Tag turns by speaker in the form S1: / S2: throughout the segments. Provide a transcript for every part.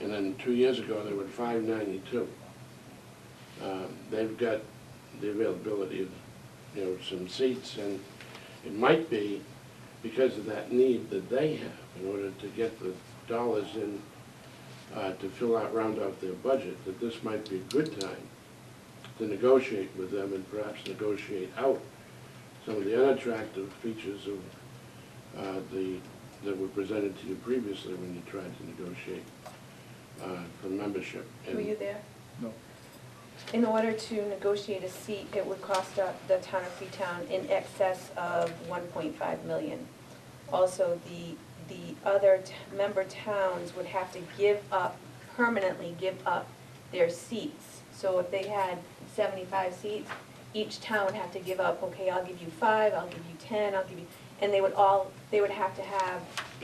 S1: And then two years ago, they were five ninety-two. Uh, They've got the availability of, you know, some seats, and it might be because of that need that they have in order to get the dollars in uh, to fill out, round out their budget, that this might be a good time to negotiate with them and perhaps negotiate out some of the unattractive features of uh, the, that were presented to you previously when you tried to negotiate uh, for membership. And
S2: Were you there?
S3: No.
S2: In order to negotiate a seat, it would cost uh, the town of Freetown in excess of 1.5 million. Also, the, the other t- member towns would have to give up, permanently give up their seats. So if they had 75 seats, each town would have to give up, okay, I'll give you five, I'll give you 10, I'll give you, and they would all, they would have to have,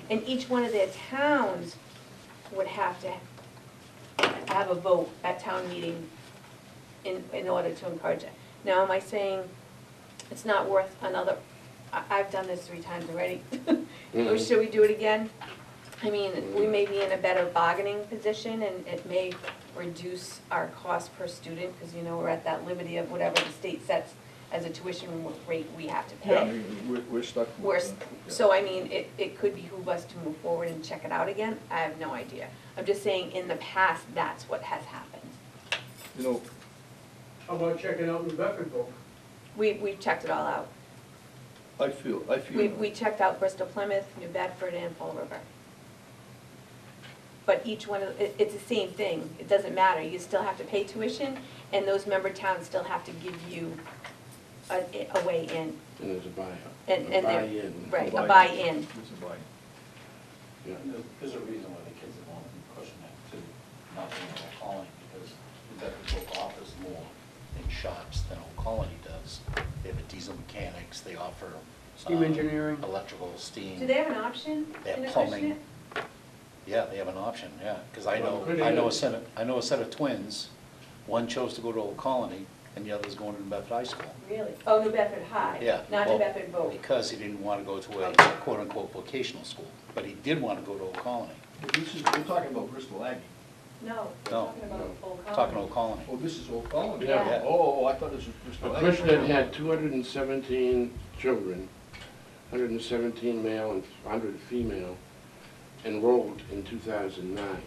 S2: and each one of their towns would have to have a vote at town meeting in, in order to encourage it. Now, am I saying it's not worth another, I, I've done this three times already. Or
S1: Mhm.
S2: should we do it again? I mean, we may be in a better bargaining position and it may reduce our cost per student, because you know, we're at that liberty of whatever the state sets as a tuition rate we have to
S3: Yeah, I
S2: pay.
S3: mean, we're, we're stuck. with,
S2: We're,
S3: uh,
S2: s-
S3: yeah.
S2: so I mean, it, it could behoove us to move forward and check it out again, I have no idea. I'm just saying, in the past, that's what has happened.
S3: You know,
S4: How about checking out New Bedfordville?
S2: We, we've checked it all out.
S3: I feel, I
S2: We,
S3: feel,
S2: we checked out Bristol Plymouth, New Bedford, and Fall River. But each one of, it, it's the same thing, it doesn't matter, you still have to pay tuition, and those member towns still have to give you a, a way in,
S1: And there's a buyout.
S2: And-
S1: a
S2: and they're-
S1: buy-in.
S2: right, a
S3: Buy-in.
S2: buy-in.
S3: there's a buy-in.
S1: Yeah.
S5: There's a reason why the kids are going to question that too, not being in Old Colony, because the Bedford offers more in shops than Old Colony does. They have a diesel mechanics, they offer.
S4: Steam
S5: um,
S4: engineering.
S5: Electrical, steam.
S2: Do they have an option
S5: They have
S2: in a
S5: plumbing.
S2: question?
S5: Yeah, they have an option, yeah, because I
S1: Well,
S5: know,
S1: pretty
S5: I know a
S1: good.
S5: set of, I know a set of twins. One chose to go to Old Colony and the other's going to New Bedford High School.
S2: Really? Oh, New Bedford High?
S5: Yeah.
S2: Not New
S5: well,
S2: Bedford Vogue?
S5: Because he didn't want to go to a
S2: Okay.
S5: quote-unquote vocational school, but he did want to go to Old Colony.
S3: This is, we're talking about Bristol Aggie.
S2: No, we're
S5: No.
S2: talking about
S1: No.
S2: Old Colony.
S5: Talking Old Colony.
S3: Oh, this is Old Colony.
S1: Yeah.
S5: Yeah.
S3: Oh, I thought this was
S1: The
S3: Bristol Aggie.
S1: Acushnet had two hundred and seventeen children, hundred and seventeen male and hundred female enrolled in two thousand nine.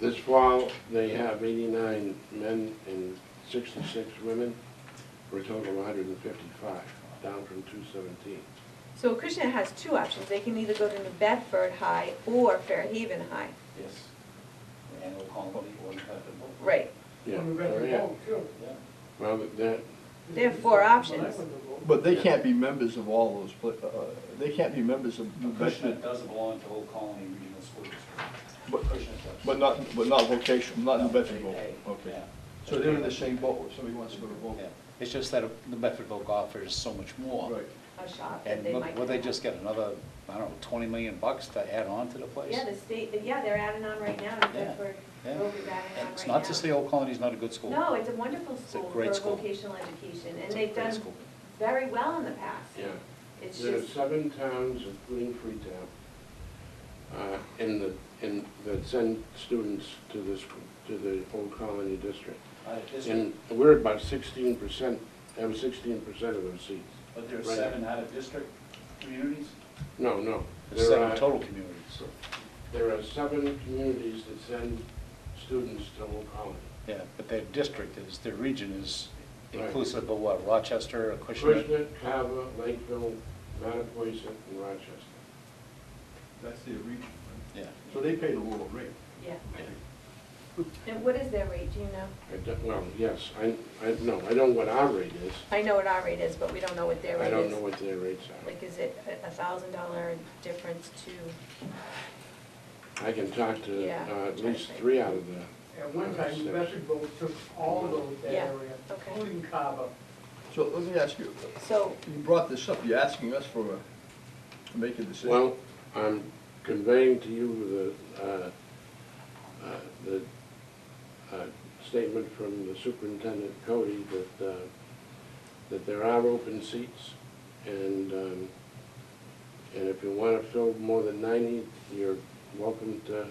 S1: This fall, they have eighty-nine men and sixty-six women, for a total of hundred and fifty-five, down from two seventeen.
S2: So Acushnet has two options, they can either go to New Bedford High or Fairhaven High.
S5: Yes. And Old Colony or New Bedford Bowl.
S2: Right,
S1: Yeah,
S4: New
S1: oh, yeah.
S4: Bedfordville, too.
S1: Well, that,
S2: They have four options.
S3: But they can't be members of all those, pla- uh, they can't be members of New
S5: Acushnet
S3: Bedford,
S5: does belong to Old Colony Regional School
S3: But-
S5: District. Acushnet does.
S3: but not, but not vocational, not New
S5: No,
S3: Bedford.
S5: they
S3: vote.
S5: pay,
S3: Okay.
S5: yeah.
S3: So they're in the same boat, if somebody wants to go to vote.
S5: Yeah. It's just that New Bedford Oak offers so much more.
S3: Right.
S2: a shop that
S5: And
S2: they
S5: look,
S2: might.
S5: will they
S2: have.
S5: just get another, I don't know, twenty million bucks to add on to the place?
S2: Yeah, the state, yeah, they're adding on right now, New
S5: Yeah,
S2: Bedford,
S5: yeah.
S2: Rover's adding on right now.
S5: And It's not to say Old Colony's not a good school.
S2: No, it's a wonderful
S5: a
S2: school for
S5: great school.
S2: vocational education, and
S5: It's a
S2: they've
S5: great
S2: done
S5: school.
S2: very well in the past.
S1: yeah.
S2: It's
S1: There are
S2: just,
S1: seven towns, including Freetown, uh, in the, in, that send students to this, to the Old Colony District.
S5: Uh, this-
S1: And we're about sixteen percent, have sixteen percent of those seats.
S5: But there are
S1: Right.
S5: seven out of district communities?
S1: No, no.
S5: There's
S1: There
S5: seven
S1: are,
S5: total communities.
S1: there are seven communities that send students to Old Colony.
S5: Yeah, but their district is, their region is
S1: Right.
S5: inclusive of what, Rochester, Acushnet?
S1: Acushnet, Carver, Lakeville, Mattapoisett, and Rochester.
S3: That's their region, right?
S5: Yeah.
S3: So they pay the lower rate.
S2: yeah. And what is their rate, do you know?
S1: I don't- Well, yes, I, I, no, I know what our rate is.
S2: I know what our rate is, but we don't know what their rate
S1: I
S2: is.
S1: don't know what their rates are.
S2: Like, is it a- a thousand dollar difference to,
S1: I can talk to
S2: Yeah.
S1: uh, at least three out of the,
S4: At one time, New Bedfordville took all of that
S2: Yeah,
S4: area,
S2: okay.
S4: including Carver.
S3: So let me ask you,
S2: so,
S3: You brought this up, you're asking us for a, to make a decision.
S1: well, I'm conveying to you the, uh, uh, the uh, statement from the superintendent Cody that, uh, that there are open seats, and, um, and if you want to fill more than ninety, you're welcome to